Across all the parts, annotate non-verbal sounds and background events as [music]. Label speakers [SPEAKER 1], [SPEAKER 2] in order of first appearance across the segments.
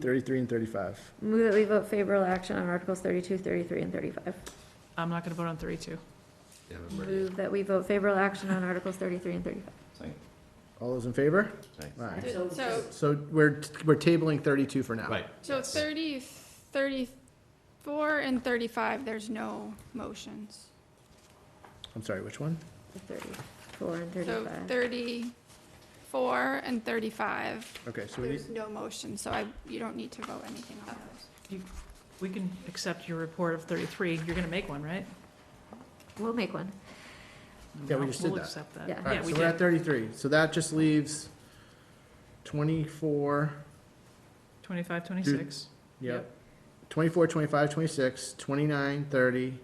[SPEAKER 1] 33 and 35.
[SPEAKER 2] Move that we vote favorable action on Articles 32, 33, and 35.
[SPEAKER 3] I'm not gonna vote on thirty-two.
[SPEAKER 4] Yeah, I'm ready.
[SPEAKER 2] Move that we vote favorable action on Articles 33 and 35.
[SPEAKER 4] Second,
[SPEAKER 1] All those in favor?
[SPEAKER 4] second.
[SPEAKER 1] Aye.
[SPEAKER 5] So,
[SPEAKER 1] So we're, we're tabling 32 for now.
[SPEAKER 4] Right.
[SPEAKER 5] so 30, 34, and 35, there's no motions.
[SPEAKER 1] I'm sorry, which one?
[SPEAKER 2] 34 and
[SPEAKER 5] So
[SPEAKER 2] 35.
[SPEAKER 5] 34 and 35,
[SPEAKER 1] Okay, so we need,
[SPEAKER 5] there's no motion, so I, you don't need to vote anything on those.
[SPEAKER 3] We can accept your report of thirty-three. You're gonna make one, right?
[SPEAKER 2] We'll make one,
[SPEAKER 1] Yeah, we just did
[SPEAKER 3] We'll
[SPEAKER 1] that.
[SPEAKER 3] accept that.
[SPEAKER 2] Yeah.
[SPEAKER 1] all right,
[SPEAKER 3] we
[SPEAKER 1] so we're at
[SPEAKER 3] did.
[SPEAKER 1] 33. So that just leaves 24,
[SPEAKER 3] Twenty-five, twenty-six.
[SPEAKER 1] yep,
[SPEAKER 3] Yep.
[SPEAKER 1] 24, 25, 26, 29, 30,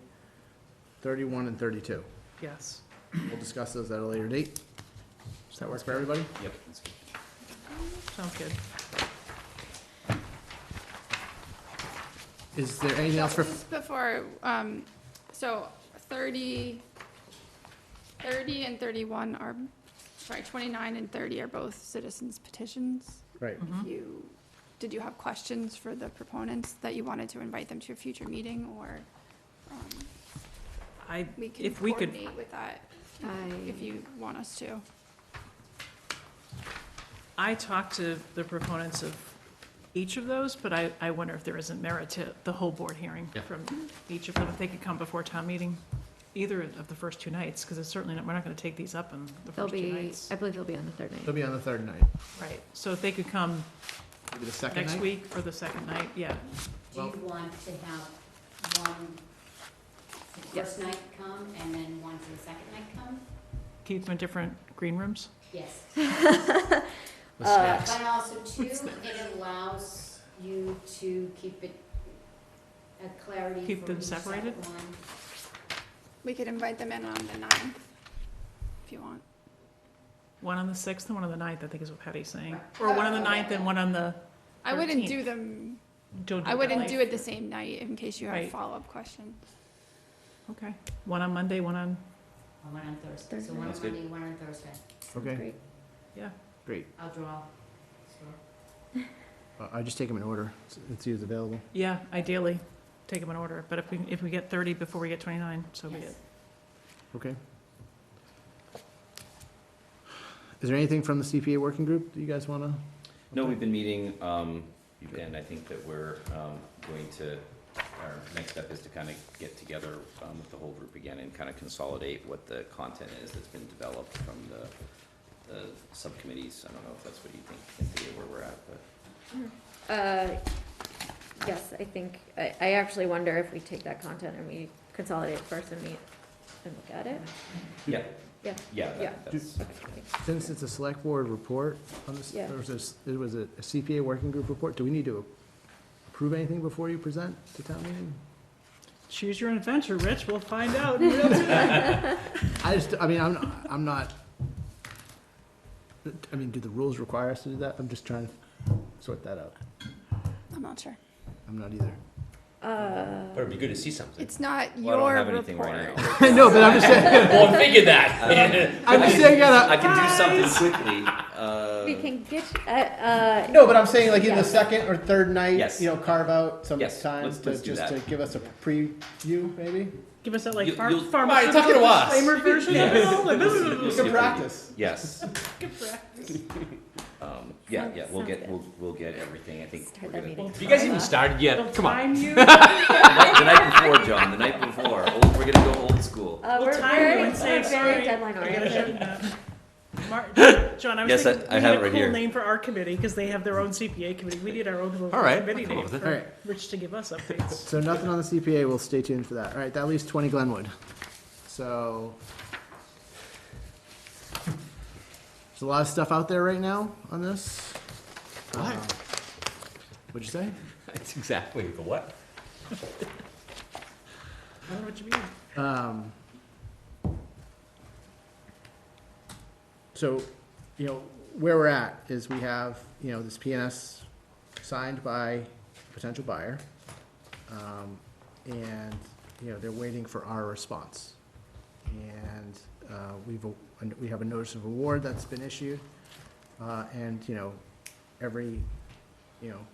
[SPEAKER 1] 31, and 32.
[SPEAKER 3] Yes.
[SPEAKER 1] We'll discuss those at a later date. Does that work for everybody?
[SPEAKER 4] Yep, that's good.
[SPEAKER 3] Sounds good.
[SPEAKER 1] Is there anything else for,
[SPEAKER 5] Just before, um, so 30, 30 and 31 are, sorry, 29 and 30 are both citizens petitions.
[SPEAKER 1] right,
[SPEAKER 3] Mhm.
[SPEAKER 5] You, did you have questions for the proponents that you wanted to invite them to a future meeting, or um,
[SPEAKER 3] I,
[SPEAKER 5] we can
[SPEAKER 3] If we could-
[SPEAKER 5] coordinate with that if
[SPEAKER 2] I,
[SPEAKER 5] you want us to?
[SPEAKER 3] I talked to the proponents of each of those, but I, I wonder if there isn't merit to the whole board hearing
[SPEAKER 4] Yeah.
[SPEAKER 3] from each of them, if they could come before town meeting, either of the first two nights, because it's certainly, not we're not gonna take these up in the
[SPEAKER 2] they'll
[SPEAKER 3] first two
[SPEAKER 2] be,
[SPEAKER 3] nights.
[SPEAKER 2] I believe they'll be on the third
[SPEAKER 1] it'll
[SPEAKER 2] night.
[SPEAKER 1] be on the third night,
[SPEAKER 3] Right, so if they could come
[SPEAKER 1] maybe the second
[SPEAKER 3] next
[SPEAKER 1] night?
[SPEAKER 3] week for the second night, yeah,
[SPEAKER 6] Do you want to have one, the
[SPEAKER 2] Yes.
[SPEAKER 6] first night come and then one for the second night come?
[SPEAKER 3] keep them in different green rooms.
[SPEAKER 6] [laughs] Yes.
[SPEAKER 1] With snacks.
[SPEAKER 6] Uh, But also too, it allows you to keep it a clarity
[SPEAKER 3] Keep
[SPEAKER 6] for
[SPEAKER 3] them
[SPEAKER 6] each
[SPEAKER 3] separated?
[SPEAKER 6] separate one.
[SPEAKER 5] We could invite them in on the 9th, if you want.
[SPEAKER 3] One on the sixth and one on the ninth, I think is what Patty's saying, or one on the ninth and one on the,
[SPEAKER 5] I wouldn't
[SPEAKER 3] 13th.
[SPEAKER 5] do them,
[SPEAKER 3] don't do
[SPEAKER 5] I wouldn't
[SPEAKER 3] that.
[SPEAKER 5] do it the same night in case you have
[SPEAKER 3] Right.
[SPEAKER 5] follow-up questions.
[SPEAKER 3] Okay, one on Monday, one on,
[SPEAKER 6] Or One on Thursday,
[SPEAKER 2] Thursday.
[SPEAKER 6] so one on
[SPEAKER 4] That's good.
[SPEAKER 6] Monday, one on Thursday.
[SPEAKER 1] Okay,
[SPEAKER 2] Great.
[SPEAKER 1] great.
[SPEAKER 6] I'll draw. So-
[SPEAKER 1] Uh, I just take them in order, s- and see who's available.
[SPEAKER 3] yeah, ideally, take them in order, but if we, if we get thirty before we get twenty-nine, so be
[SPEAKER 6] Yes.
[SPEAKER 3] it.
[SPEAKER 1] Okay. Is there anything from the CPA working group that you guys want to?
[SPEAKER 4] No, we've been meeting, um, and I think that we're, um, going to, our next step is to kind of get together, um, with the whole group again and kind of consolidate what the content is that's been developed from the, the subcommittees. I don't know if that's what you think, Cynthia, where we're at, but.
[SPEAKER 2] Uh, Yes, I think, I, I actually wonder if we take that content and we consolidate first and meet and look at it.
[SPEAKER 4] Yeah.
[SPEAKER 2] Yeah.
[SPEAKER 4] Yeah,
[SPEAKER 2] Yeah.
[SPEAKER 4] that- that's,
[SPEAKER 1] Since it's a select board report on this,
[SPEAKER 2] Yeah.
[SPEAKER 1] or was this, it was a CPA working group report, do we need to approve anything before you present to town meeting?
[SPEAKER 3] Choose your own adventure, Rich. We'll find out. [laughs]
[SPEAKER 1] I just, I mean, I'm, I'm not, I mean, do the rules require us to do that? I'm just trying to sort that out.
[SPEAKER 5] I'm not sure.
[SPEAKER 1] I'm not either. [laughs]
[SPEAKER 2] Uh,
[SPEAKER 4] but it'd be good to see something.
[SPEAKER 5] It's not
[SPEAKER 4] Well, I don't
[SPEAKER 5] your
[SPEAKER 4] have anything right
[SPEAKER 5] report.
[SPEAKER 4] now.
[SPEAKER 1] I know, but I'm just saying,
[SPEAKER 4] Well, I'm thinking that.
[SPEAKER 1] I'm just saying, I
[SPEAKER 4] I can do something quickly, uh.
[SPEAKER 2] We can get, uh, uh,
[SPEAKER 1] No, but I'm saying like in
[SPEAKER 2] Yeah.
[SPEAKER 1] the second or third night,
[SPEAKER 4] Yes.
[SPEAKER 1] you know, carve out some
[SPEAKER 4] Yes,
[SPEAKER 1] time
[SPEAKER 4] let's-
[SPEAKER 1] to,
[SPEAKER 4] let's do
[SPEAKER 1] just to
[SPEAKER 4] that.
[SPEAKER 1] give us a preview, maybe?
[SPEAKER 3] Give us that like
[SPEAKER 4] You-
[SPEAKER 3] far-
[SPEAKER 4] you'll-
[SPEAKER 3] pharmaceutical
[SPEAKER 1] Right, took it a while.
[SPEAKER 3] disclaimer
[SPEAKER 7] [laughs]
[SPEAKER 3] version of it all. Like,
[SPEAKER 1] We
[SPEAKER 4] Good
[SPEAKER 1] can practice.
[SPEAKER 4] Yes.
[SPEAKER 3] Good practice.
[SPEAKER 4] Um, yeah, yeah, we'll
[SPEAKER 2] Sounds
[SPEAKER 4] get,
[SPEAKER 2] good.
[SPEAKER 4] we'll, we'll get everything, I think.
[SPEAKER 2] Start
[SPEAKER 4] we're
[SPEAKER 2] that
[SPEAKER 4] gonna-
[SPEAKER 2] meeting.
[SPEAKER 7] You guys even started
[SPEAKER 3] We'll
[SPEAKER 7] yet? Come [laughs] on.
[SPEAKER 3] time you.
[SPEAKER 4] The night before, John, the night before, Old- we're gonna go old school.
[SPEAKER 2] uh,
[SPEAKER 3] We'll
[SPEAKER 2] we're,
[SPEAKER 3] time you
[SPEAKER 2] we're,
[SPEAKER 3] and say,
[SPEAKER 2] we're very
[SPEAKER 3] "Sorry,
[SPEAKER 2] deadline
[SPEAKER 3] I gotta
[SPEAKER 2] oriented.
[SPEAKER 3] shut [laughs] up." Mar- John, I was
[SPEAKER 4] Yes, I-
[SPEAKER 3] thinking
[SPEAKER 4] I
[SPEAKER 3] we
[SPEAKER 4] have
[SPEAKER 3] need
[SPEAKER 4] it
[SPEAKER 3] a
[SPEAKER 4] right
[SPEAKER 3] cool
[SPEAKER 4] here.
[SPEAKER 3] name for our committee because they have their own CPA committee. We need our own little
[SPEAKER 7] All right,
[SPEAKER 3] committee
[SPEAKER 7] I'll come up
[SPEAKER 3] name
[SPEAKER 7] with it.
[SPEAKER 1] All
[SPEAKER 3] for
[SPEAKER 1] right.
[SPEAKER 3] Rich to give us updates.
[SPEAKER 1] So nothing on the CPA, we'll stay tuned for that. All right, that leaves twenty Glenwood. So. There's a lot of stuff out there right now on this.
[SPEAKER 7] What?
[SPEAKER 1] Uh, What'd you say?
[SPEAKER 7] That's exactly the what?
[SPEAKER 3] I don't know what you mean.
[SPEAKER 1] Um, So, you know, where we're at is we have, you know, this PNS signed by a potential buyer. um, And, you know, they're waiting for our response. And uh, we've, a- and we have a notice of award that's been issued. uh, And, you know, every, you know,